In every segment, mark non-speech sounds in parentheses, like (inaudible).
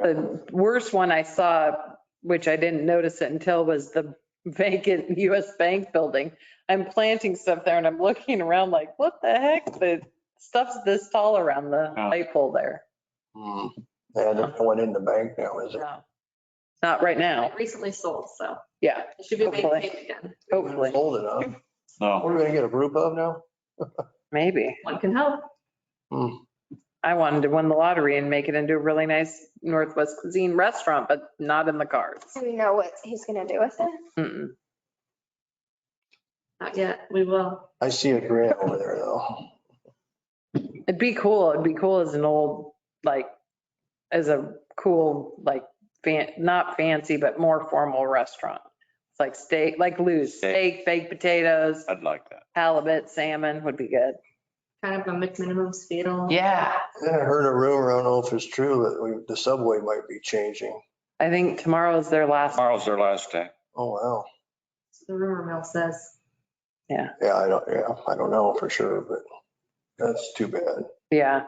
The worst one I saw, which I didn't notice it until, was the vacant (laughs) US Bank building. I'm planting stuff there and I'm looking around like, what the heck? The stuff's this tall around the Oh. light pole there. Hmm. Yeah, there's no one in the bank now, is it? No. Not right now. It recently sold, so Yeah, it should be Hopefully. maintained again. hopefully, Hold it up. What No, are we gonna get a group of now? maybe. One can hope. I wanted to win the lottery and make it into a really nice Northwest cuisine restaurant, but not in the cards. Do we know what he's gonna do with it? Mm-mm. Not yet. We will. I see a grant over there though. It'd be cool. It'd be cool as an old, like, as a cool, like, fan, not fancy, but more formal restaurant. It's like steak, like Lou's, Steak. steak, baked potatoes, I'd like that. halibut, salmon would be good. Kind of a McMinimum's fetal. Yeah. Then I heard a rumor, I don't know if it's true, that we, the subway might be changing. I think tomorrow is their last. Tomorrow's their last day. Oh, wow. The rumor mill says. Yeah, I don't, yeah, I don't know for sure, but that's too bad. Yeah.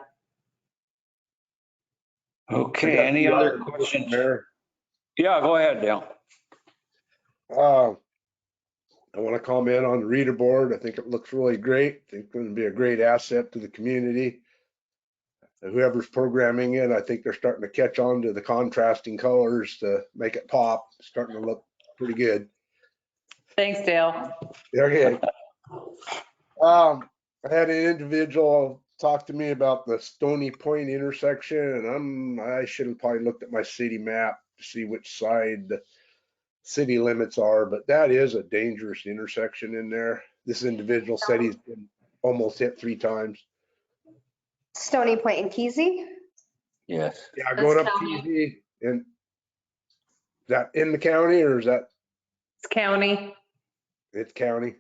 Okay, any other questions? Yeah, go ahead, Dale. Uh, I want to comment on the reader board. I think it looks really great. I think it's going to be a great asset to the community. And Whoever's programming it, I think they're starting to catch on to the contrasting colors to make it pop. It's Starting to look pretty good. Thanks, Dale. Okay. (laughs) Um, I had an individual talk to me about the Stony Point intersection and I'm, I should have probably looked at my city map to see which side the city limits are, but that is a dangerous intersection in there. This individual said he's been almost hit three times. Stony Point and Keezy? Yes. Yeah, That's going up county. TZ and that in the county or is that, It's county. it's county?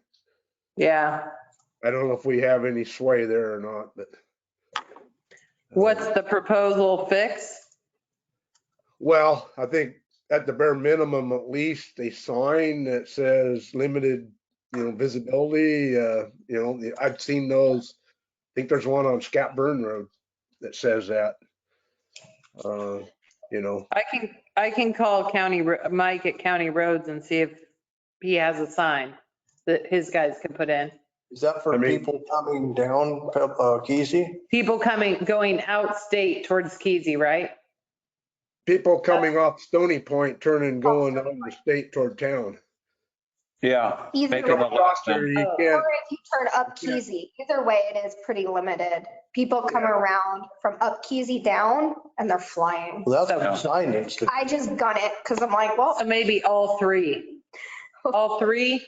Yeah. I don't know if we have any sway there or not, but. What's the proposal fix? Well, I think at the bare minimum, at least a sign that says limited, you know, visibility, uh, you know, the- I've seen those. I think there's one on Scatburn Road that says that. Uh, you know, I can, I can call county, Ro- Mike at County Roads and see if he has a sign that his guys can put in. Is that for I mean- people coming down, Pe- uh, Keezy? People coming, going out state towards Keezy, right? people coming off Stony Point turning, going on the state toward town. Yeah. Either Make way. them a last There name. you Oh. can't, Or if you turn up Yeah. Keezy, either way, it is pretty limited. People come Yeah. around from up Keezy down and they're flying. Well, that's So- what the sign needs to, I just gun it because I'm like, well, So maybe all three, all three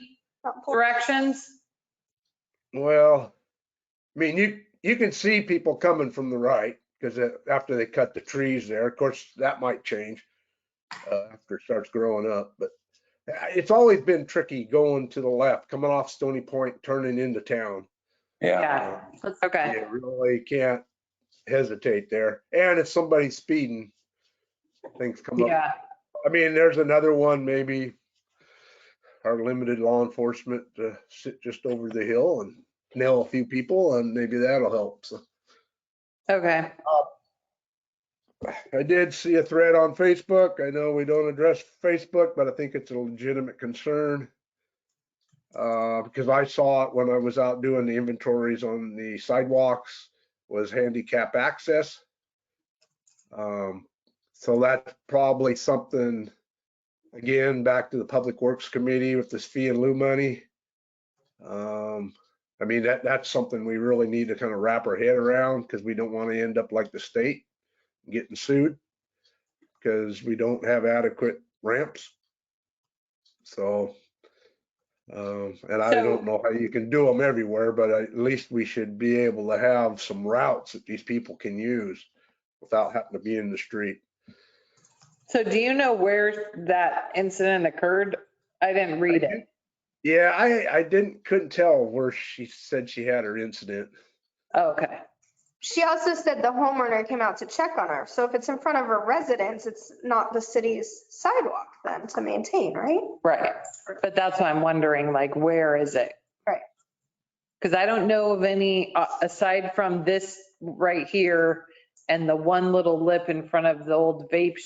directions? well, I mean, you, you can see people coming from the right because after they cut the trees there, of course, that might change. uh, after it starts growing up, but uh, it's always been tricky going to the left, coming off Stony Point, turning into town. Yeah. Yeah, Let's- okay. You really can't hesitate there. And if somebody's speeding, things come up. Yeah, I mean, there's another one, maybe our limited law enforcement to sit just over the hill and nail a few people and maybe that'll help. So okay. I did see a thread on Facebook. I know we don't address Facebook, but I think it's a legitimate concern. Uh, because I saw it when I was out doing the inventories on the sidewalks was handicap access. Um, so that's probably something, again, back to the Public Works Committee with this fee and lieu money. Um, I mean, that, that's something we really need to kind of wrap our head around because we don't want to end up like the state getting sued because we don't have adequate ramps. So, um, and I So- don't know how you can do them everywhere, but at least we should be able to have some routes that these people can use without having to be in the street. So do you know where that incident occurred? I didn't read it. Yeah, I, I didn't, couldn't tell where she said she had her incident. Oh, Okay, she also said the homeowner came out to check on her. So if it's in front of her residence, it's not the city's sidewalk then to maintain, right? right. But that's why I'm wondering, like, where is it? Right. Because I don't know of any, uh, aside from this right here and the one little lip in front of the old vape